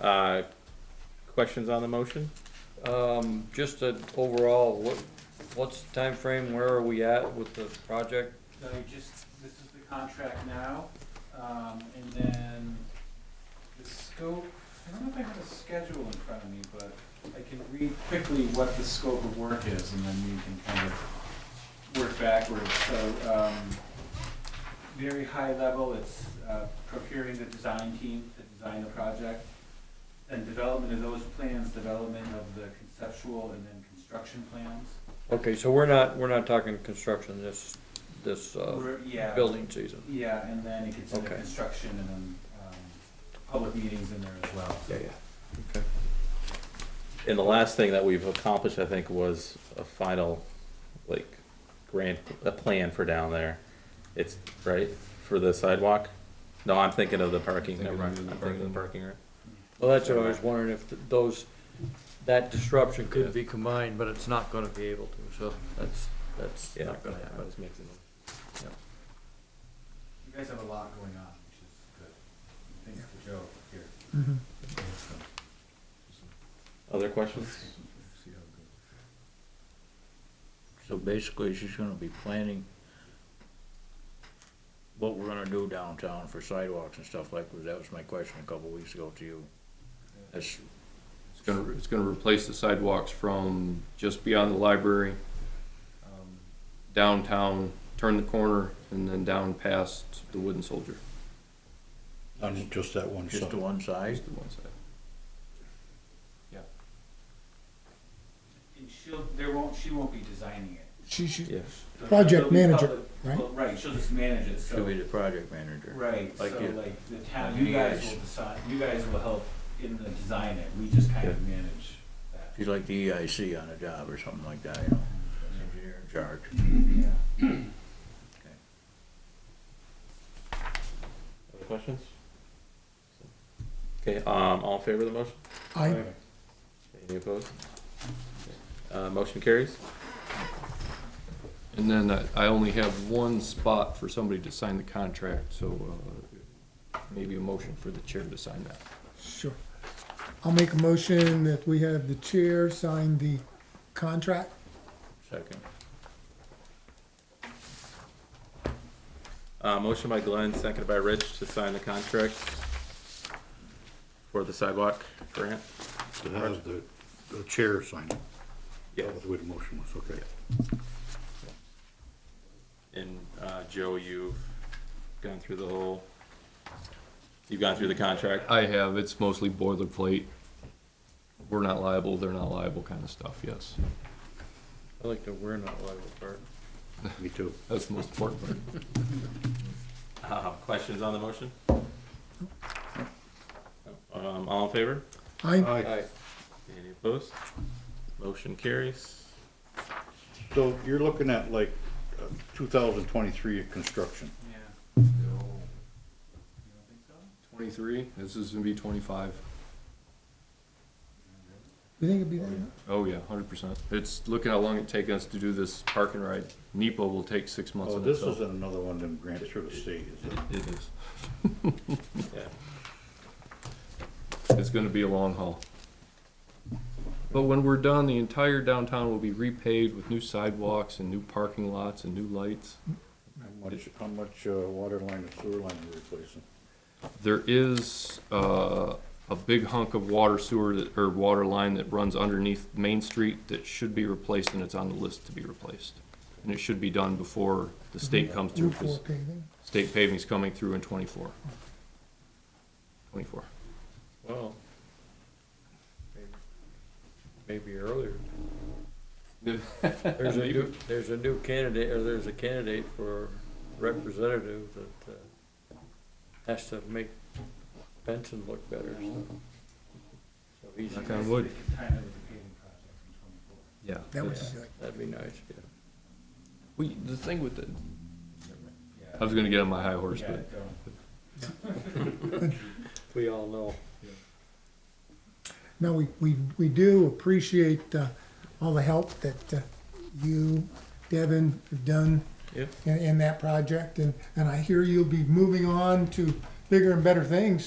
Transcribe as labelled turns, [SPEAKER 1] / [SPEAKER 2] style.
[SPEAKER 1] Uh, Questions on the motion?
[SPEAKER 2] Um, just a overall, what, what's the timeframe, where are we at with the project?
[SPEAKER 3] So you just, this is the contract now, um, and then the scope, I don't know if I have a schedule in front of me, but I can read quickly what the scope of work is, and then we can kind of work backwards, so, um, very high level, it's, uh, procuring the design team to design the project, and development of those plans, development of the conceptual and then construction plans.
[SPEAKER 2] Okay, so we're not, we're not talking construction this, this, uh,
[SPEAKER 3] We're- Yeah.
[SPEAKER 2] building season.
[SPEAKER 3] Yeah, and then it gets into
[SPEAKER 2] Okay.
[SPEAKER 3] construction and then, um, public meetings in there as well.
[SPEAKER 1] Yeah, yeah. Okay. And the last thing that we've accomplished, I think, was a final, like, grant, a plan for down there. It's, right, for the sidewalk? No, I'm thinking of the parking,
[SPEAKER 4] Thinking
[SPEAKER 1] never mind,
[SPEAKER 4] of
[SPEAKER 1] I'm
[SPEAKER 4] the
[SPEAKER 1] thinking of the parking, right?
[SPEAKER 2] Well, that's what I was wondering, if th- those, that disruption
[SPEAKER 4] Yeah.
[SPEAKER 2] could be combined, but it's not gonna be able to, so that's, that's
[SPEAKER 1] Yeah.
[SPEAKER 2] not gonna happen.
[SPEAKER 3] You guys have a lot going on, which is good. Thanks to Joe here.
[SPEAKER 1] Other questions?
[SPEAKER 5] So basically, she's gonna be planning what we're gonna do downtown for sidewalks and stuff like, that was my question a couple weeks ago to you. That's,
[SPEAKER 4] It's gonna, it's gonna replace the sidewalks from just beyond the library, um, downtown, turn the corner, and then down past the wooden soldier,
[SPEAKER 6] On just that one
[SPEAKER 5] just
[SPEAKER 6] side.
[SPEAKER 5] to one side,
[SPEAKER 4] just the one side.
[SPEAKER 3] And she'll, there won't, she won't be designing it.
[SPEAKER 7] She, she,
[SPEAKER 1] Yeah.
[SPEAKER 3] But
[SPEAKER 7] Project
[SPEAKER 3] there'll be
[SPEAKER 7] manager,
[SPEAKER 3] public-
[SPEAKER 7] right?
[SPEAKER 3] well, Right, she'll just manage it,
[SPEAKER 5] she'll be
[SPEAKER 3] so,
[SPEAKER 5] the project manager.
[SPEAKER 3] right, so
[SPEAKER 5] like you-
[SPEAKER 3] like the town,
[SPEAKER 5] like
[SPEAKER 3] you
[SPEAKER 5] you
[SPEAKER 3] guys
[SPEAKER 5] guys.
[SPEAKER 3] will decide, you guys will help in the design it, we just kind of manage that.
[SPEAKER 5] She's like the EIC on a job or something like that, you know, engineer in charge.
[SPEAKER 3] Yeah.
[SPEAKER 1] Other questions? Okay, um, all in favor of the motion?
[SPEAKER 7] I,
[SPEAKER 1] Any opposed? Uh, motion carries?
[SPEAKER 4] And then I, I only have one spot for somebody to sign the contract, so, uh, maybe a motion for the chair to sign that.
[SPEAKER 7] sure. I'll make a motion that we have the chair sign the contract.
[SPEAKER 5] Second,
[SPEAKER 1] Uh, motion by Glenn, seconded by Rich to sign the contract for the sidewalk grant.
[SPEAKER 6] So that was the, the chair signing.
[SPEAKER 1] Yeah.
[SPEAKER 6] That was the way the motion was, okay.
[SPEAKER 1] And, uh, Joe, you've gone through the whole, you've gone through the contract.
[SPEAKER 4] I have, it's mostly boilerplate. We're not liable, they're not liable kind of stuff, yes.
[SPEAKER 2] I like the we're not liable part.
[SPEAKER 6] Me too.
[SPEAKER 4] That's the most important part.
[SPEAKER 1] Uh, questions on the motion? Um, all in favor?
[SPEAKER 7] I,
[SPEAKER 4] Uh,
[SPEAKER 6] Aye.
[SPEAKER 1] Any opposed? Motion carries.
[SPEAKER 6] So you're looking at like uh, two thousand twenty-three construction.
[SPEAKER 3] Yeah. You don't think so?
[SPEAKER 4] Twenty-three, this is gonna be twenty-five.
[SPEAKER 7] you think it'd be that?
[SPEAKER 4] Oh, yeah, hundred percent. It's, look at how long it take us to do this park and ride. NEPA will take six months
[SPEAKER 6] Oh,
[SPEAKER 4] in
[SPEAKER 6] this is
[SPEAKER 4] itself.
[SPEAKER 6] another one of them grants through the state, is it?
[SPEAKER 4] It is.
[SPEAKER 1] Yeah.
[SPEAKER 4] It's gonna be a long haul. But when we're done, the entire downtown will be repaved with new sidewalks and new parking lots and new lights.
[SPEAKER 6] How much, how much, uh, water line and sewer line are replacing?
[SPEAKER 4] There is, uh, a big hunk of water sewer that, or water line that runs underneath Main Street that should be replaced and it's on the list to be replaced. And it should be done before the state
[SPEAKER 6] Mhm.
[SPEAKER 4] comes through,
[SPEAKER 7] Route four
[SPEAKER 4] 'cause
[SPEAKER 7] paving.
[SPEAKER 4] state paving's coming through in twenty-four. Twenty-four.
[SPEAKER 2] Well, maybe- maybe earlier. There's a new, there's a new candidate, or there's a candidate for representative that, uh, has to make Benson look better, so. So he's,
[SPEAKER 4] Knock on wood.
[SPEAKER 3] Kind of with the paving project in twenty-four.
[SPEAKER 4] Yeah.
[SPEAKER 7] That would be
[SPEAKER 4] that's-
[SPEAKER 7] good.
[SPEAKER 2] that'd be nice, yeah.
[SPEAKER 4] We, the thing with the,
[SPEAKER 3] Yeah.
[SPEAKER 4] I was gonna get on my high horse,
[SPEAKER 3] Yeah,
[SPEAKER 4] but
[SPEAKER 3] don't.
[SPEAKER 2] We all know.
[SPEAKER 7] No, we, we, we do appreciate, uh, all the help that, uh, you, Devin, have done
[SPEAKER 1] Yep.
[SPEAKER 7] in, in that project, and, and I hear you'll be moving on to bigger and better things